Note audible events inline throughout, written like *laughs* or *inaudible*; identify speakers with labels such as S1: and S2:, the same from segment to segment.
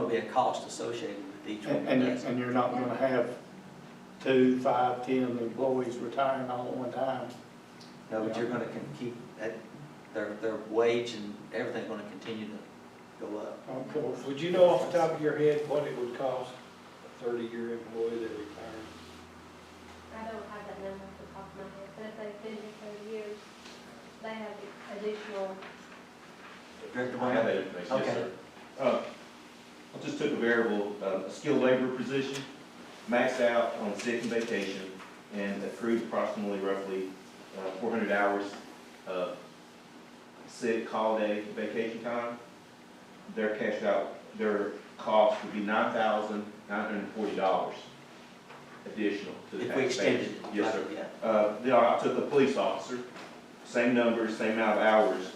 S1: be a cost associated with each one
S2: And,
S1: of
S2: and,
S1: those.
S2: and you're not gonna have two, five, ten employees retiring all at one time.
S1: No, but you're gonna can keep, that, their, their wage and everything gonna continue to go up.
S2: Of course,
S3: Would you know off the top of your head what it would cost a thirty-year employee that retired?
S4: I don't have that number off the top of my head, but if they've been here thirty years, they have additional,
S1: Director
S5: I have
S1: Brown?
S5: that information, yes,
S1: Okay.
S5: sir. Uh, I just took a variable, uh, skilled labor position, maxed out on sick and vacation, and accrued approximately roughly uh, four hundred hours of sick, holiday, vacation time. Their cash out, their cost would be nine thousand nine hundred and forty dollars additional to the
S1: If we
S5: taxpayer.
S1: extended it.
S5: Yes,
S1: like,
S5: sir.
S1: yeah.
S5: Uh, then I took a police officer, same numbers, same amount of hours,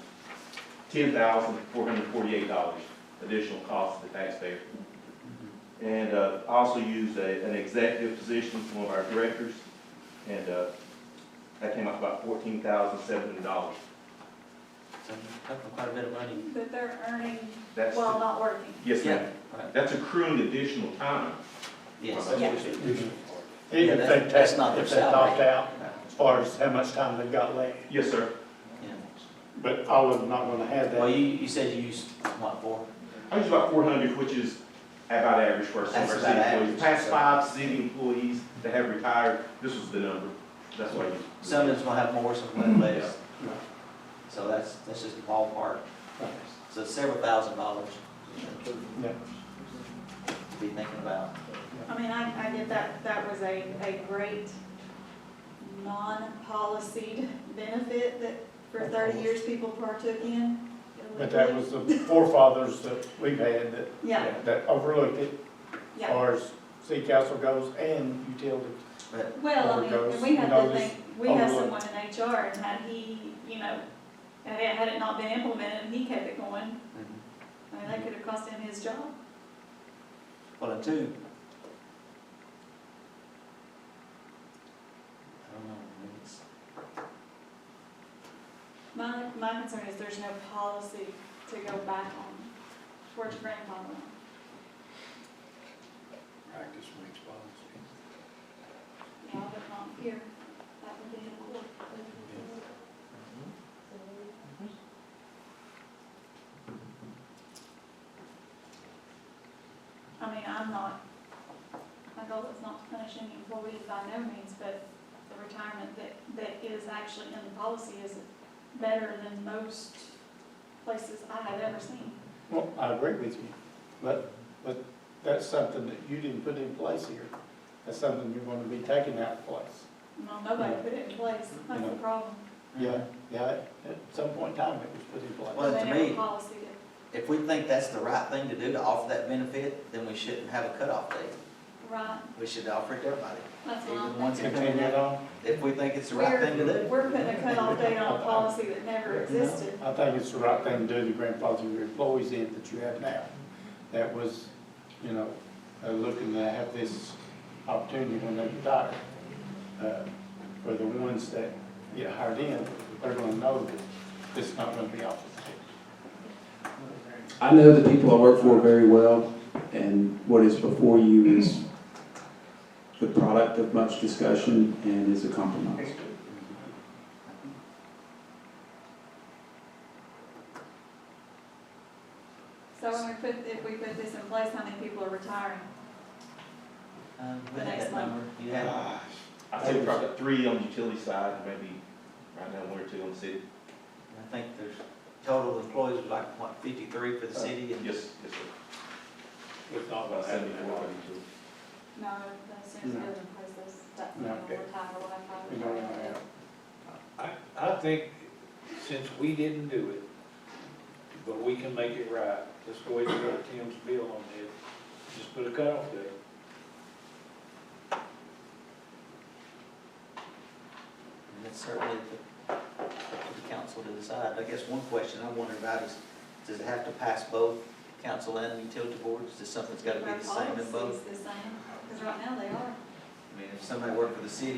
S5: ten thousand four hundred forty-eight dollars additional cost to the taxpayer.
S2: Mm-hmm.
S5: And, uh, I also used a, an executive position from one of our directors, and, uh, that came out about fourteen thousand seven hundred dollars.
S1: So, that's quite a bit of money.
S6: But they're earning
S5: That's,
S6: while not working.
S5: yes, ma'am.
S1: Yeah, right.
S5: That's accruing additional time.
S1: Yes.
S5: Well,
S6: that's-
S1: Yeah,
S2: If
S1: that-
S2: they
S1: that's
S2: take-
S1: not their
S2: if they opt
S1: salary.
S2: out, as far as how much time they've got left,
S5: Yes, sir.
S1: Yeah.
S2: but all of them not gonna have
S1: Well,
S2: that.
S1: you, you said you used, what, four?
S5: I use about four hundred, which is about average for some of
S1: That's
S5: our
S1: about
S5: city
S1: average.
S5: employees. Past five city employees that have retired, this was the number. That's why you.
S1: Some of them's gonna have more, some of less.
S2: Yeah.
S1: So that's, that's just the ballpark. So it's several thousand dollars
S2: Yeah.
S1: to be thinking about.
S6: I mean, I, I get that, that was a, a great non-policied benefit that for thirty years people partook in.
S2: But that was the forefathers that we've had that,
S6: Yeah,
S2: that overlooked it, as
S6: yeah.
S2: far as city council goes and utility.
S6: Well, I mean, and we had
S2: Overdose,
S6: to think, we
S2: you know,
S6: have
S2: just
S6: someone in HR and had he, you know, had it, had it not been implemented and he kept it going,
S2: Mm-hmm.
S6: I mean, that could have cost him his job.
S1: Well, and two. I don't know, maybe it's,
S6: My, my concern is there's no policy to go back on, towards grandfathering.
S3: Practice makes policy.
S6: Yeah, but not here, that would be in court. I mean, I'm not, my goal is not to punish any employees by no means, but the retirement that, that is actually in the policy is better than most places I have ever seen.
S2: Well, I agree with you, but, but that's something that you didn't put in place here. That's something you're gonna be taking out of place.
S6: Well, nobody put it in place, that's the problem.
S2: Yeah, yeah, at some point in time, it was put in place.
S1: Well, to
S6: They never
S1: me-
S6: Policy it.
S1: if we think that's the right thing to do to offer that benefit, then we shouldn't have a cutoff date.
S6: Right,
S1: We should offer it to everybody,
S6: that's what I'm
S1: even
S6: thinking.
S1: ones that come
S2: Continue
S1: in.
S2: it on.
S1: If we think it's the right thing to do.
S6: Uh-huh. We're putting a cutoff date on a policy
S1: *laughs*
S6: that never existed.
S2: I think it's the right thing to do to grandfather your employees in that you have now. That was, you know, uh, looking to have this opportunity when they retire. Uh, For the ones that get hired in, they're gonna know that it's not gonna be offered to them.
S7: I know the people I work for very well, and what is before you is the product of much discussion and is a compromise.
S6: So when we put, if we put this in place, how many people are retiring?
S1: Um, we
S6: The
S1: had
S6: next
S1: that
S6: one.
S1: number, you had, it.
S5: I think probably three on the utility side, and maybe right now one or two on the city.
S1: I think there's total employees was like, what, fifty-three for the city and
S5: Yes, yes, sir.
S3: It's all
S5: About seventy-four on utility.
S6: No, as soon as it goes in place, those, that's when
S2: No.
S6: we'll retire, we'll have five
S2: You know,
S6: retired.
S2: uh,
S3: I, I think since we didn't do it, but we can make it right, let's go ahead and go to Tim's bill on it, just put a cutoff date.
S1: And it's certainly up to up to the council to decide. I guess one question I wonder about is, does it have to pass both council and utility boards? Is something's gotta be the same in
S6: Our
S1: both?
S6: policy's the same, because right now they are.
S1: I mean, if somebody worked for the city